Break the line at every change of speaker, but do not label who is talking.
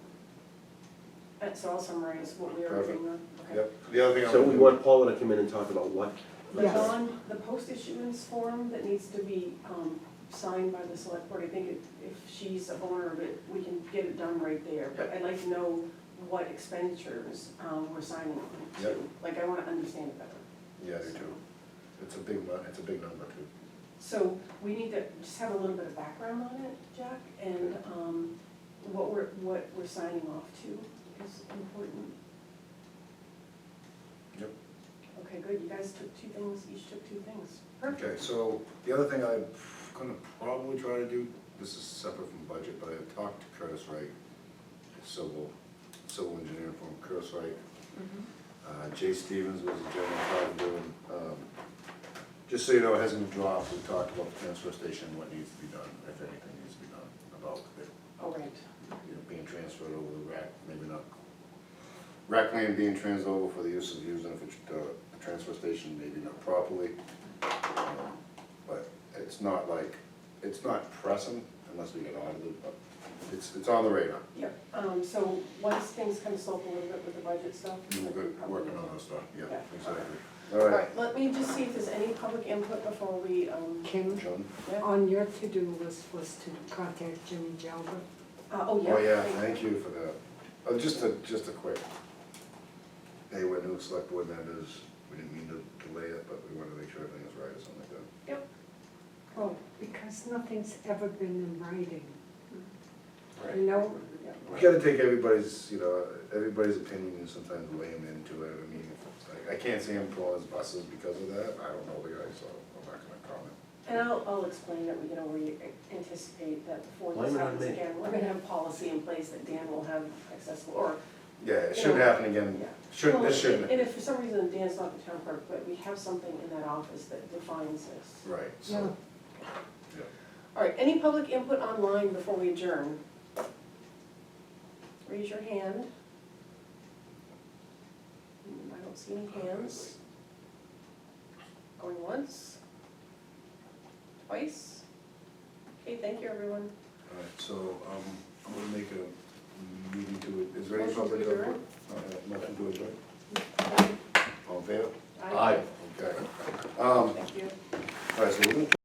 That's all summarized, what we already
Perfect.
agreed on. Okay.
Yep, the other thing I
So we
would,
want Paula to come in and talk about what?
The
Yes.
bond, the post issuance form that needs to be um, signed by the select board, I think if- if she's a owner of it, we can get it done right there. But I'd like to know what expenditures um, we're signing on
Yep.
to. Like, I want to understand it better.
yeah, I do too. It's a big, mu- it's a big number too.
So we need to just have a little bit of background on it, Jack, and um, what we're, what we're signing off to is important.
Yep.
Okay, good, you guys took two things, each took two things. Perfect.
Okay, so the other thing I'm gonna probably try to do, this is separate from budget, but I talked to Curtis Wright, civil, civil engineer from Curtis Wright. Uh, Jay Stevens was the general contractor, and, um, just so you know, it hasn't been dropped, we talked about the transfer station, what needs to be done, if anything needs to be done, about it
All right,
you know, being transferred over the rack, maybe not. Rack land being transferred over for the use of using for tr- uh, the transfer station, maybe not properly. Um, But it's not like, it's not pressing unless we get audited, but it's, it's on the radar.
yep, um, so once things kind of slope a little bit with the budget stuff.
We're good,
probably-
working on this stuff, yeah,
Yeah.
exactly.
All
All right,
right, let me just see if there's any public input before we, um,
Kim,
John?
on your to-do list was to contact Jimmy Jalbert.
uh, oh, yeah.
Oh, yeah,
thank you.
thank you for that. Oh, just a, just a quick, hey, we're new select board members, we didn't mean to delay it, but we wanted to make sure everything was right or something like that.
Oh, because nothing's ever been in writing. You know,
You gotta take everybody's, you know, everybody's opinion and sometimes weigh them into it, I mean, I, I can't say I'm pulling his buses because of that, I don't know the guy, so I'm not gonna comment.
And I'll, I'll explain that, we, you know, we anticipate that before
Blame
this
it on
happens
me.
again, we're gonna have a policy in place that Dan will have accessible, or,
Yeah, it shouldn't happen again,
yeah.
shouldn't,
Well,
this shouldn't,
And if for some reason Dan's not the town clerk, but we have something in that office that defines this.
right,
yeah,
so, yeah.
All right, any public input online before we adjourn? Raise your hand. Hmm, I don't see any hands. Going once? Twice? Okay, thank you, everyone.
Alright, so, um, I'm gonna make a meeting to it, is there any
Motion to
public
adjourn?
input? Um,